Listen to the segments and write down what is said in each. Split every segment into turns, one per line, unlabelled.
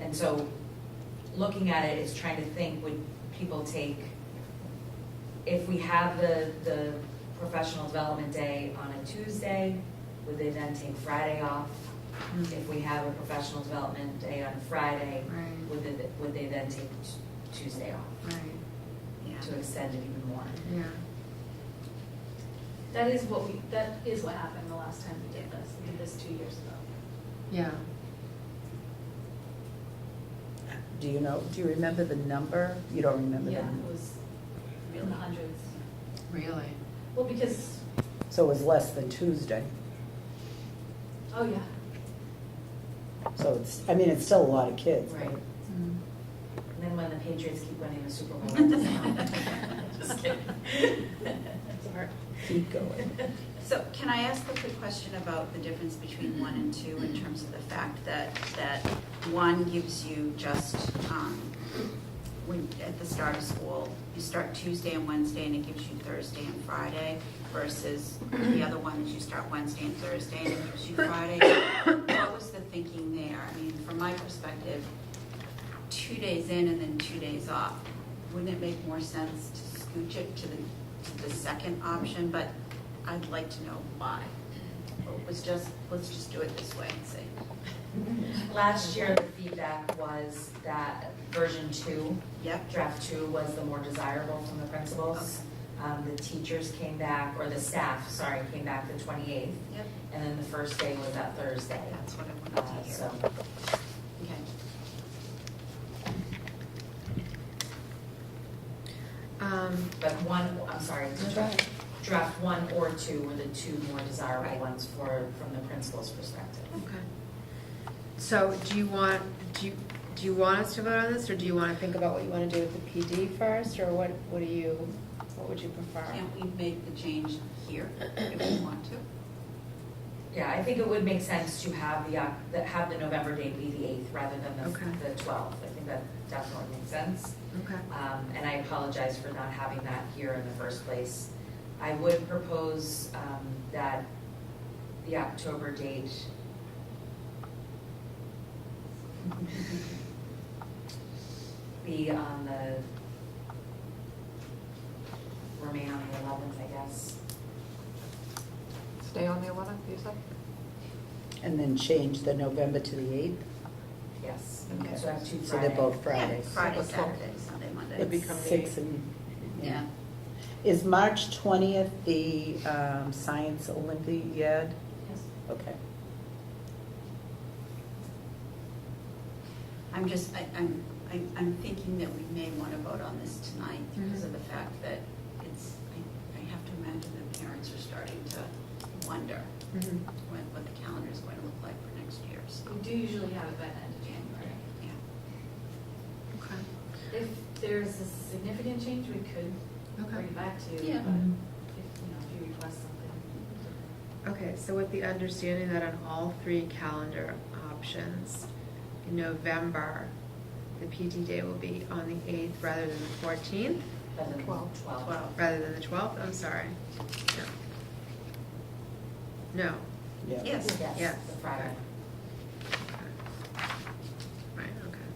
And so, looking at it is trying to think, would people take, if we have the, the professional development day on a Tuesday, would they then take Friday off?
Mm-hmm.
If we have a professional development day on Friday,
Right,
would they, would they then take Tu- Tuesday off
right,
to extend it even more?
yeah.
That is what we, that is what happened the last time we did this, we did this two years ago.
Yeah.
Do you know, do you remember the number? You don't remember the
Yeah,
number?
it was in the hundreds.
Really?
Well, because,
So it was less than Tuesday.
oh yeah,
So it's, I mean, it's still a lot of kids. but-
Mm-hmm.
And then when the Patriots keep winning the Super Bowl, it doesn't help. just kidding. Sorry.
Keep going.
So can I ask a quick question about the difference between one and two in terms of the fact that, that one gives you just, um, when, at the start of school, you start Tuesday and Wednesday and it gives you Thursday and Friday versus the other one is you start Wednesday and Thursday and it gives you Friday. What was the thinking there? I mean, from my perspective, two days in and then two days off. Wouldn't it make more sense to scooch it to the, to the second option? But I'd like to know why. It was just, let's just do it this way and see.
Last year, the feedback was that version two,
Yep,
draft two, was the more desirable from the principals. Um, the teachers came back, or the staff, sorry, came back the twenty-eighth,
yep,
and then the first day was that Thursday.
that's what I
Uh,
wanted to hear.
so,
Okay.
Um,
but one, I'm sorry, draft, draft one or two were the two more desirable
Right.
ones for, from the principal's perspective.
okay. So do you want, do you, do you want us to vote on this, or do you wanna think about what you wanna do with the PD first, or what, what do you, what would you prefer?
Can't we make the change here if we want to?
Yeah, I think it would make sense to have the, Oc- that have the November date be the eighth rather than
Okay.
the, the twelfth. I think that definitely makes sense.
Okay.
Um, and I apologize for not having that here in the first place. I would propose, um, that the October date. Be on the, remain on the eleventh, I guess.
Stay on the eleventh, you said?
And then change the November to the eighth,
Yes.
Okay.
So I have two Fridays.
so they're both
Yeah,
Fridays.
Friday,
What's up?
Saturday, Sunday, Monday.
It'd be-
It's
become the
Six
eighth.
and,
Yeah,
yeah. Is March twentieth the um, Science Olympiad?
yes.
Okay.
I'm just, I, I'm, I'm- I'm thinking that we may want to vote on this tonight because of the fact that it's, I, I have to imagine that parents are starting to wonder
Mhm.
what, what the calendar is going to look like for next year, so,
We do usually have it by the end of January.
yeah.
Okay,
If there's a significant change, we could bring
okay.
it back to you,
Yeah.
but if, you know, if you request something.
Okay, so with the understanding that on all three calendar options, in November, the PD day will be on the eighth rather than the fourteenth,
Rather than
Twelve.
twelve.
Well,
rather than the twelfth, I'm sorry. No. No,
Yeah.
yes,
Yes,
Yeah.
the Friday.
right, okay,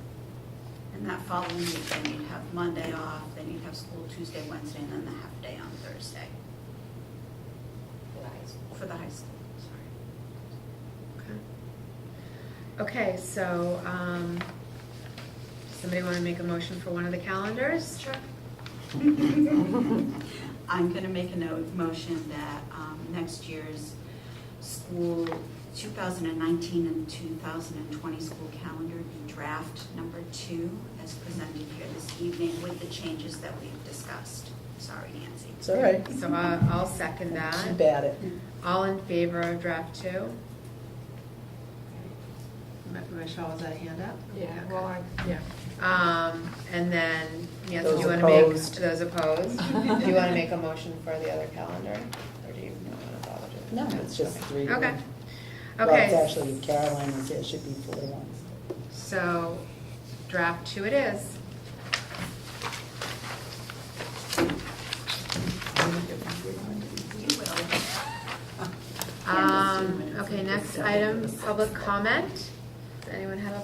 and that following week, then you'd have Monday off, then you'd have school Tuesday, Wednesday, and then the half day on Thursday
for the high school.
for the high school, sorry.
okay. Okay, so, um, does somebody wanna make a motion for one of the calendars? Sure.
I'm going to make a note, motion that um, next year's school, 2019 and 2020 school calendar be draft number two as presented here this evening with the changes that we've discussed. Sorry, Nancy.
It's all right.
So I, I'll second
Keep
that.
at it.
All in favor of draft two? Mi- Michelle, was that a hand up?
Yeah,
Okay.
well, I, yeah.
Um, and then, Nancy, do
Those
you wanna make,
opposed.
those opposed? Do you wanna make a motion for the other calendar, or do you not wanna bother doing
No,
that?
it's just three.
Okay, okay.
Well, it's actually Caroline, is- it should be four ones.
So, draft two it is.
You will.
Um, okay, next item, public comment. Does anyone have a